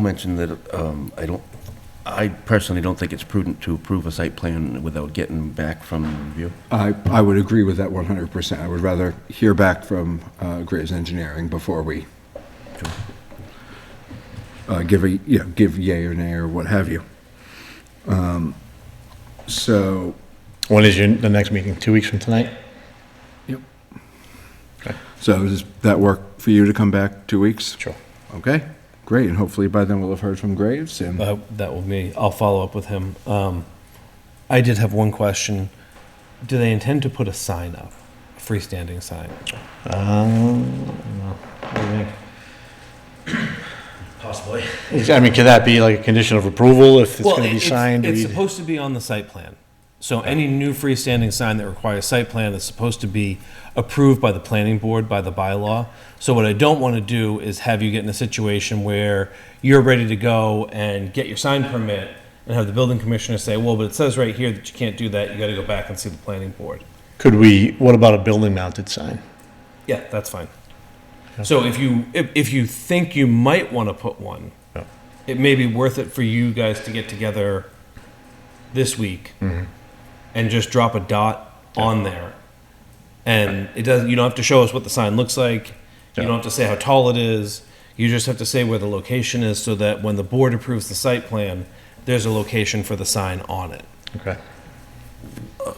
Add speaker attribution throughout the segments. Speaker 1: mentioned that um, I don't, I personally don't think it's prudent to approve a site plan without getting back from review.
Speaker 2: I, I would agree with that 100%. I would rather hear back from uh, Graves Engineering before we uh, give a, you know, give yay or nay or what have you. Um, So,
Speaker 3: When is your, the next meeting, two weeks from tonight?
Speaker 2: so does that work for you to come back two weeks?
Speaker 3: Sure.
Speaker 2: Okay, great, and hopefully by then we'll have heard from Graves and,
Speaker 4: Uh, that will be. I'll follow up with him. Um, I did have one question. Do they intend to put a sign up, a freestanding sign?
Speaker 3: Um,
Speaker 4: Possibly.
Speaker 3: I mean, could that be like a condition of approval if it's
Speaker 4: well,
Speaker 3: gonna be
Speaker 4: it's,
Speaker 3: signed?
Speaker 4: It's
Speaker 3: We-
Speaker 4: supposed to be on the site plan. So any new freestanding sign that requires site plan is supposed to be approved by the planning board by the bylaw. So what I don't want to do is have you get in a situation where you're ready to go and get your sign permit and have the building commissioner say, "Well, but it says right here that you can't do that. You got to go back and see the planning board."
Speaker 3: Could we, what about a building mounted sign?
Speaker 4: Yeah, that's fine. So if you if, if you think you might want to put one,
Speaker 3: Yeah.
Speaker 4: it may be worth it for you guys to get together this week
Speaker 3: Mm-hmm.
Speaker 4: and just drop a dot on there. And it doesn't you don't have to show us what the sign looks like. You
Speaker 3: Yeah.
Speaker 4: don't have to say how tall it is. You just have to say where the location is so that when the board approves the site plan, there's a location for the sign on it.
Speaker 3: Okay.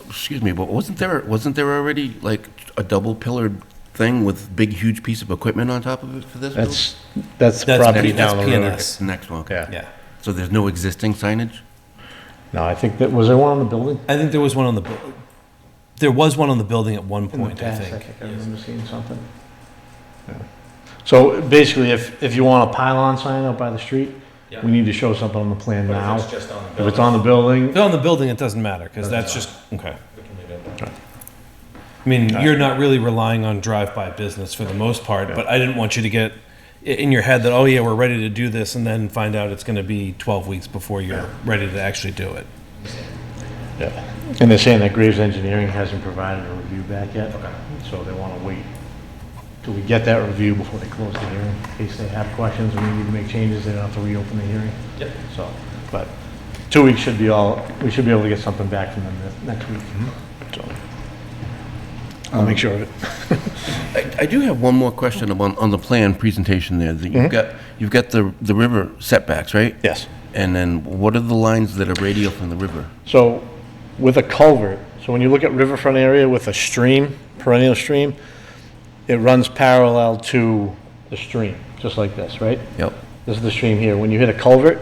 Speaker 1: Excuse me, but wasn't there, wasn't there already like a double pillared thing with big huge piece of equipment on top of it for this? building?
Speaker 3: That's, that's
Speaker 4: That's-
Speaker 3: property
Speaker 4: that's
Speaker 3: down the road.
Speaker 4: PNS.
Speaker 1: Next one, okay.
Speaker 3: Yeah.
Speaker 4: Yeah.
Speaker 1: So there's no existing signage?
Speaker 3: No, I think that, was there one on the building?
Speaker 4: I think there was one on the bu- there was one on the building at one
Speaker 3: In the
Speaker 4: point, I
Speaker 3: past, I
Speaker 4: think.
Speaker 3: think I remember seeing something. Yeah. So basically, if, if you want a pylon sign up by the street,
Speaker 4: Yeah.
Speaker 3: we need to show something on the plan now. If
Speaker 4: just on the
Speaker 3: it's on the building,
Speaker 4: If they're on the building, it doesn't matter, because that's just, okay. I mean, you're not really relying on drive-by business for the most part, but I didn't want you to get i- in your head that, oh yeah, we're ready to do this, and then find out it's gonna be twelve weeks before you're ready to actually do it.
Speaker 3: Yeah, and they're saying that Graves Engineering hasn't provided a review back yet. So they want to wait till we get that review before they close the hearing, in case they have questions and we need to make changes, they don't have to reopen the hearing.
Speaker 4: Yep.
Speaker 3: So, but two weeks should be all, we should be able to get something back from them ne- next week. So, I'll make sure of it.
Speaker 1: I, I do have one more question on, on the plan presentation there. that
Speaker 3: Mm-hmm.
Speaker 1: You've got, you've got the, the river setbacks, right?
Speaker 3: Yes.
Speaker 1: And then what are the lines that are radial from the river?
Speaker 3: So with a culvert, so when you look at riverfront area with a stream, perennial stream, it runs parallel to the stream, just like this, right?
Speaker 1: Yep.
Speaker 3: This is the stream here. When you hit a culvert,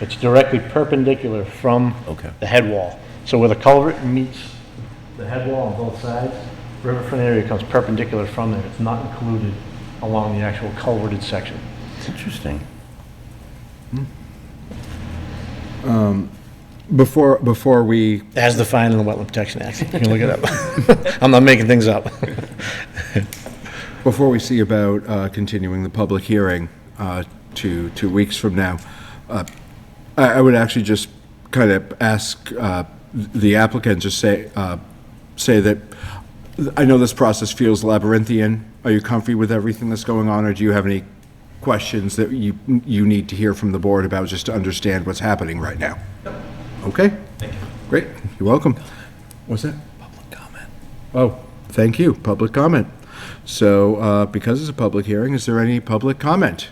Speaker 3: it's directly perpendicular from
Speaker 1: Okay.
Speaker 3: the head wall. So where the culvert meets the head wall on both sides, riverfront area comes perpendicular from there. It's not included along the actual culverted section.
Speaker 1: Interesting.
Speaker 2: before, before we,
Speaker 3: As defined in the Wetland Protection Act. You can look it up. I'm not making things up.
Speaker 2: before we see about uh, continuing the public hearing uh, to two weeks from now, uh, I I would actually just kind of ask uh, the applicant to say, uh, say that, I know this process feels labyrinthian. Are you comfy with everything that's going on, or do you have any questions that you, you need to hear from the board about just to understand what's happening right now? Okay? Thank you. Great, you're welcome. What's that? Oh, thank you, public comment. So, uh, because it's a public hearing, is there any public comment?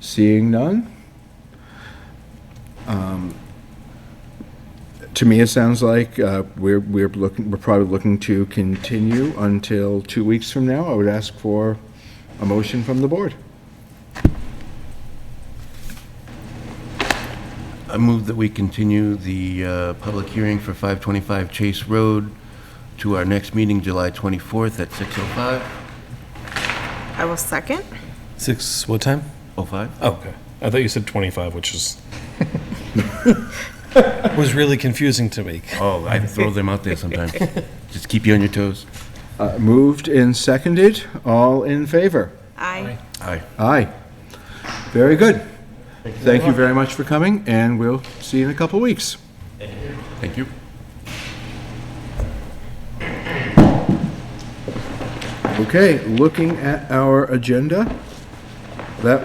Speaker 2: Seeing none? Um, To me, it sounds like uh, we're, we're looking, we're probably looking to continue until two weeks from now. I would ask for a motion from the board.
Speaker 1: I move that we continue the uh, public hearing for 525 Chase Road to our next meeting, July 24th at 6:05.
Speaker 5: I will second.
Speaker 4: Six, what time?
Speaker 1: 05?
Speaker 4: Oh, Okay. I thought you said twenty-five, which is. Was really confusing to me.
Speaker 1: Oh, I throw them out there sometimes. Just keep you on your toes.
Speaker 2: Uh, Moved and seconded, all in favor?
Speaker 5: Aye.
Speaker 1: Aye.
Speaker 2: Aye. Very good. Thank you very much for coming, and we'll see you in a couple weeks.
Speaker 1: Thank you.
Speaker 2: Okay, looking at our agenda, That